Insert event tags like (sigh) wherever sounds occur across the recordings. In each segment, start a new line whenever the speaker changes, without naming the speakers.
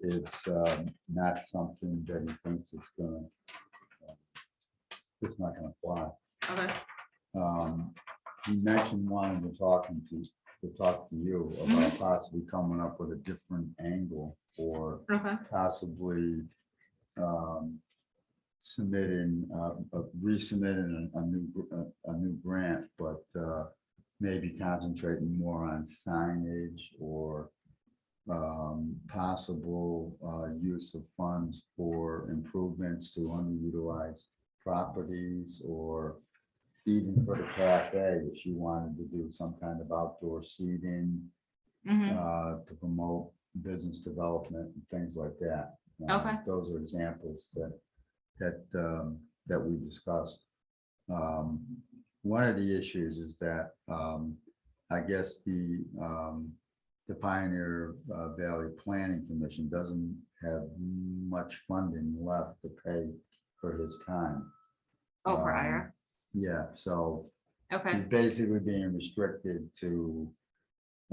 it's um, not something that he thinks it's gonna. uh, It's not gonna fly.
Okay,
Um, He mentioned wanting to talk and to, to talk to you about possibly coming up with a different angle for
okay,
possibly um, submitting, uh, uh, resubmitting a a new, gr- a- a new grant, but uh, maybe concentrating more on signage or um, possible uh, use of funds for improvements to underutilized properties or even for the cafe, if you wanted to do some kind of outdoor seating
mhm,
uh, to promote business development and things like that. Uh,
Okay.
Those are examples that, that, um, that we discussed. Um, One of the issues is that, um, I guess the, um, the Pioneer uh, Valley Planning Commission doesn't have much funding left to pay for his time.
oh, for
um,
Ira,
Yeah, so
okay,
He's basically being restricted to,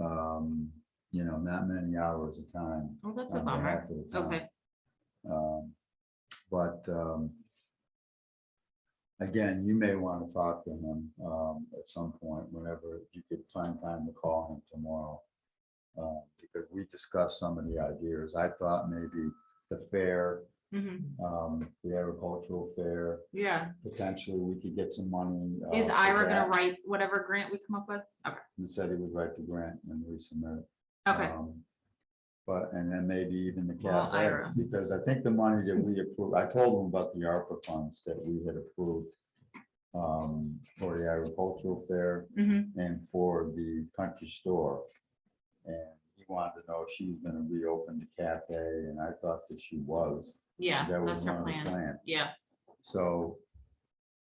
um, you know, not many hours of time.
well, Oh, that's a
on
bummer,
behalf of the town.
okay,
Um, But, um, again, you may want to talk to him, um, at some point, whenever you could find time to call him tomorrow. Uh, because we discussed some of the ideas. I thought maybe the fair,
mhm,
um, the agricultural fair,
yeah,
potentially we could get some money. uh,
is
for
Ira
that.
gonna write whatever grant we come up with? Okay,
He said he would write the grant and resubmit. it.
okay,
Um, But, and then maybe even the
Well,
cafe,
Ira.
because I think the money that we approved, I told him about the ARPA funds that we had approved um, for the agricultural fair
mhm,
and for the country store. And he wanted to know if she's gonna reopen the cafe, and I thought that she was.
yeah,
That
that's
was
her
one of the
plan,
plans.
yeah,
So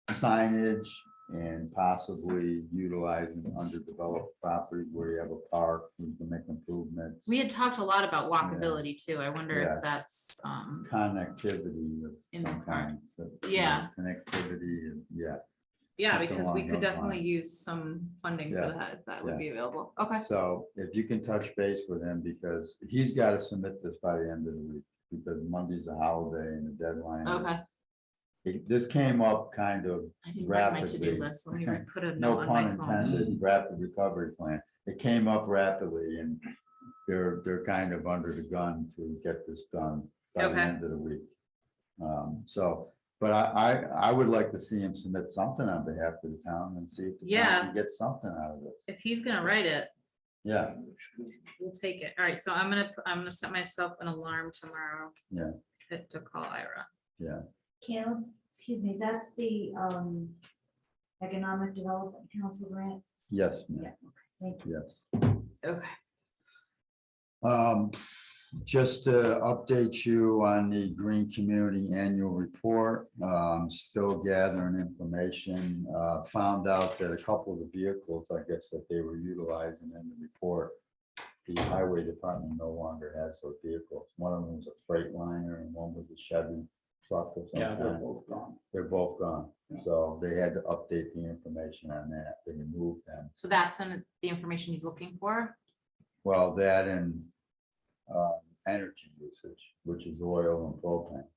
signage and possibly utilizing underdeveloped property where you have a park, you can make improvements.
we had talked a lot about walkability too, I wonder
Yeah.
if that's, um,
Connectivity of
In the
some
park.
kind. so, you know,
Yeah.
Connectivity, and yeah.
yeah,
something
because we
along
could
those
definitely use some funding
Yeah,
for that, if that
yeah.
would be available, okay,
So if you can touch base with him, because he's got to submit this by the end of the week, because Monday's a holiday and the deadline. is-
okay.
It- This came up kind of
I didn't write my to-do
rapidly.
list, let me
(laughs)
write- put a
no
note on
pun
my phone.
intended, rapid recovery plan. It came up rapidly and they're, they're kind of under the gun to get this done by the
Okay.
end of the week. Um, so, but I, I, I would like to see him submit something on behalf of the town and see if the
Yeah.
town can get something out of this.
If he's gonna write it,
Yeah,
We'll take it. All right, so I'm gonna, I'm gonna set myself an alarm tomorrow.
Yeah.
To to call Ira.
Caleb, excuse me, that's the um Economic Development Council grant.
yes, ma'am,
Thank you.
yes.
Okay.
Um, just to update you on the Green Community Annual Report, um, still gathering information. Uh, found out that a couple of the vehicles, I guess, that they were utilizing in the report, the highway department no longer has those vehicles. One of them was a Freightliner and one was a Chevy truck or
Yeah, they're
something.
both gone.
They're both gone, so they had to update the information on that. They removed them.
So that's in the information he's looking for.
Well, that and um, energy usage, which is oil and propane.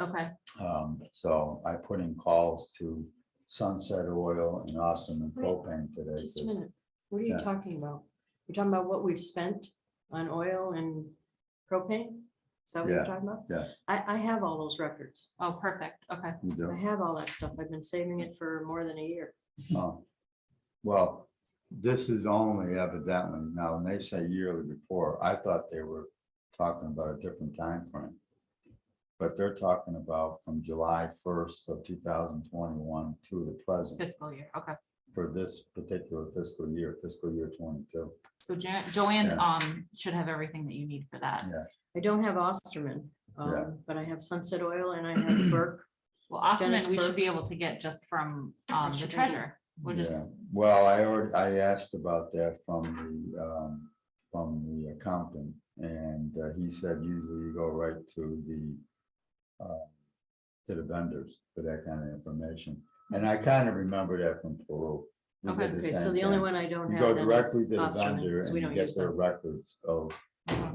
Okay,
Um, So I put in calls to Sunset Oil and Austin and
Wait,
Propane today.
Just a
'cause-
minute, what are
Yeah.
you talking about? You're talking about what we've spent on oil and propane? Is that what
Yeah,
you're talking about?
yeah.
I, I have all those records.
oh, perfect, okay.
You
I
do?
have all that stuff. I've been saving it for more than a year.
Oh. Well, this is only evidently, now when they say yearly report, I thought they were talking about a different time frame, But they're talking about from July first of two thousand twenty-one to the present
Fiscal year, okay.
for this particular fiscal year, fiscal year twenty-two.
So Jan- Joanne,
Yeah.
um, should have everything that you need for that.
I don't have Osterman,
Yeah.
um, but I have Sunset Oil and I have Burke.
Well, Austin,
Dennis
we should
Burke.
be able to get just from, um, the
should do.
treasurer. We'll
Yeah,
just,
well, I already, I asked about that from the, um, from the accountant, and uh, he said usually you go right to the, uh, to the vendors for that kind of information, and I kind of remember that from Peru. We did
Okay,
the
Okay, so
same
the only
thing.
one I don't
You
have.
go
then is
directly to the
Osterman,
vendor
'cause
and
we
you
don't
get
use
their
them.
records of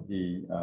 the, uh,